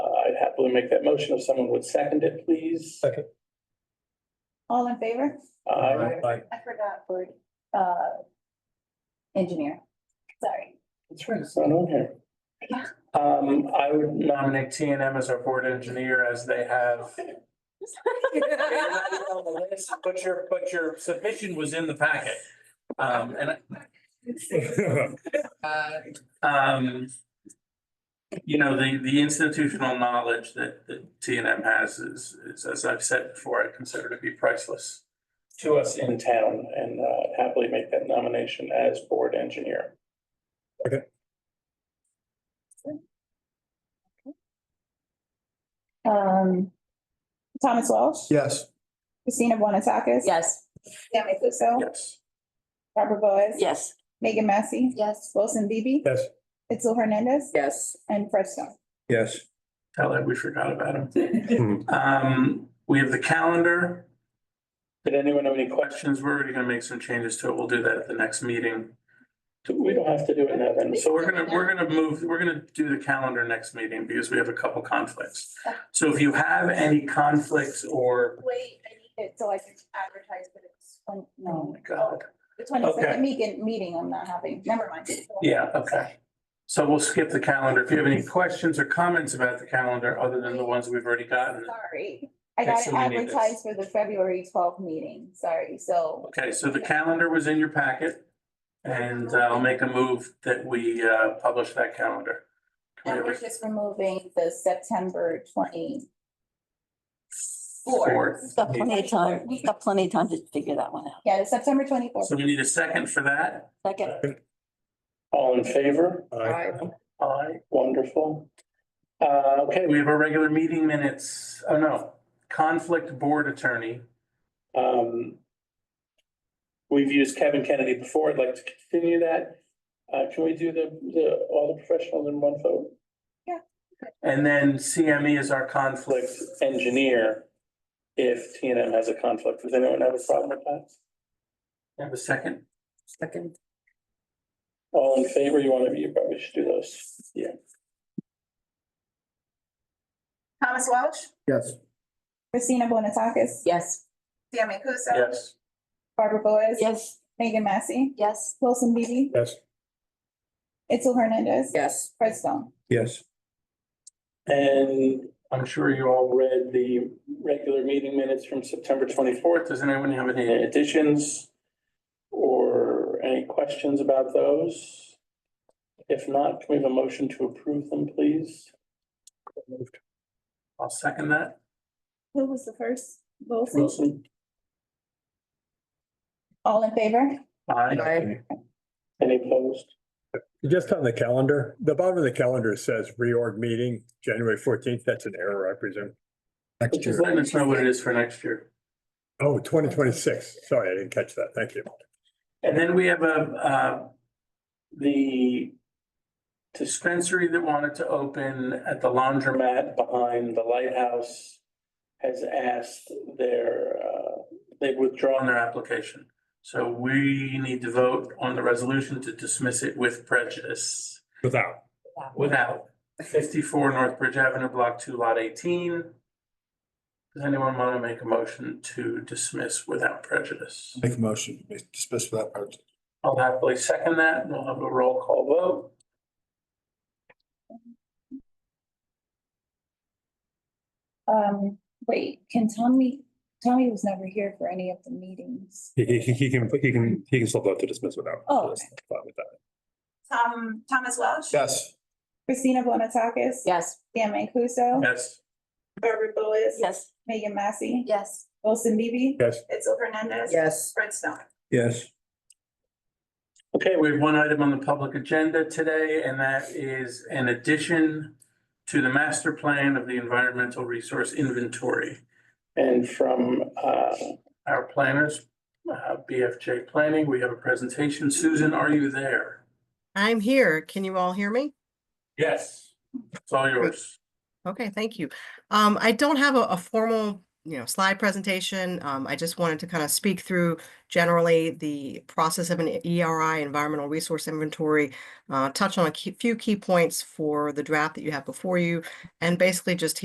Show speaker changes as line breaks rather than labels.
Uh, I'd happily make that motion if someone would second it, please.
Second.
All in favor?
Aye.
Aye.
I forgot word, uh, engineer. Sorry.
That's right, it's not on here.
Yeah.
Um, I would nominate T and M as our board engineer as they have. They're not on the list, But your, but your submission was in the packet. Um, and I- um. You know, the, the institutional knowledge that, that T and M has is, is, as I've said before, I consider to be priceless. To us in town and uh, happily make that nomination as board engineer.
Um, Thomas Walsh.
Yes.
Christina Bonatakis.
Yes.
Stanley Kuzo.
Yes.
Barbara Boas.
Yes.
Megan Massey.
Yes.
Wilson Bibi.
Yes.
Itzel Hernandez.
Yes.
And Fred Stone.
Yes.
Tell that we forgot about
Hmm.
him. Um, we have the calendar. Did anyone have any questions? We're already gonna make some changes to it. We'll do that at the next meeting. We don't have to do it now then. So we're gonna, we're gonna move, we're gonna do the calendar next meeting because we have a couple conflicts. So if you have any conflicts or,
Wait, I need it so I can advertise, but it's, twen-
oh
no,
my God.
the twenty
Okay.
second meeting, meeting I'm not having. Never mind.
Yeah, okay. So we'll skip the calendar. If you have any questions or comments about the calendar, other than the ones we've already gotten.
Sorry. I
Okay,
got it
so we need this.
advertised for the February twelfth meeting. Sorry. So
Okay, so the calendar was in your packet. And uh, I'll make a move that we uh, publish that calendar. Can we
And
have a
we're just removing the September twenty.
fourth?
Got plenty of time, we've got plenty of time to figure that one out.
Yeah, the September twenty-fourth.
So we need a second for that.
Second,
All in favor?
Aye.
Aye, wonderful. Uh, okay, we have our regular meeting minutes. Oh, no, conflict board attorney. Um. We've used Kevin Kennedy before. I'd like to continue that. Uh, can we do the, the, all the professionals in one vote?
Yeah.
And then CME is our conflict engineer. If T and M has a conflict, does anyone have a problem with that? Have a second?
second.
All in favor, you want to, you probably should do those. Yeah.
Thomas Welsh,
Yes.
Christina Bonatakis,
Yes.
Sammy Kuso.
Yes.
Barbara Boas.
Yes.
Megan Massey,
Yes.
Wilson Bibi,
Yes.
Itzel Hernandez.
Yes.
Fred Stone.
Yes.
And I'm sure you all read the regular meeting minutes from September twenty-fourth. Does anyone have any additions? Or any questions about those? If not, can we have a motion to approve them, please? I'll second that.
Who was the first? Wilson.
Wilson?
All in favor?
Aye. Any opposed?
Just on the calendar, the bottom of the calendar says reorg meeting, January fourteenth. That's an error, I presume. Next
Just letting us know what it is for next year.
Oh, 2026. Sorry, I didn't catch that. Thank you.
And then we have a, uh, the dispensary that wanted to open at the laundromat behind the lighthouse has asked their, uh, they've withdrawn their application. So we need to vote on the resolution to dismiss it with prejudice,
Without.
without fifty-four North Bridge Avenue, block two, lot eighteen. Does anyone want to make a motion to dismiss without prejudice?
Make a motion, to dismiss without prejudice.
I'll happily second that, and we'll have a roll call vote.
Um, wait, can Tommy, Tommy was never here for any of the meetings.
He, he, he can, he can, he can still vote to dismiss without.
Oh, okay.
Fine with that.
Tom, Thomas Welsh.
Yes.
Christina Bonatakis.
Yes.
Sammy Kuso.
Yes.
Barbara Boas.
Yes.
Megan Massey.
Yes.
Wilson Bibi.
Yes.
Itzel Hernandez.
Yes.
Fred Stone.
Yes.
Okay, we have one item on the public agenda today, and that is an addition to the master plan of the environmental resource inventory. And from uh, our planners, uh, BFJ Planning, we have a presentation. Susan, are you there?
I'm here. Can you all hear me?
Yes. It's all yours.
Okay, thank you. Um, I don't have a, a formal, you know, slide presentation. Um, I just wanted to kind of speak through generally the process of an ERI, environmental resource inventory, uh, touch on a key- few key points for the draft that you have before you, and basically just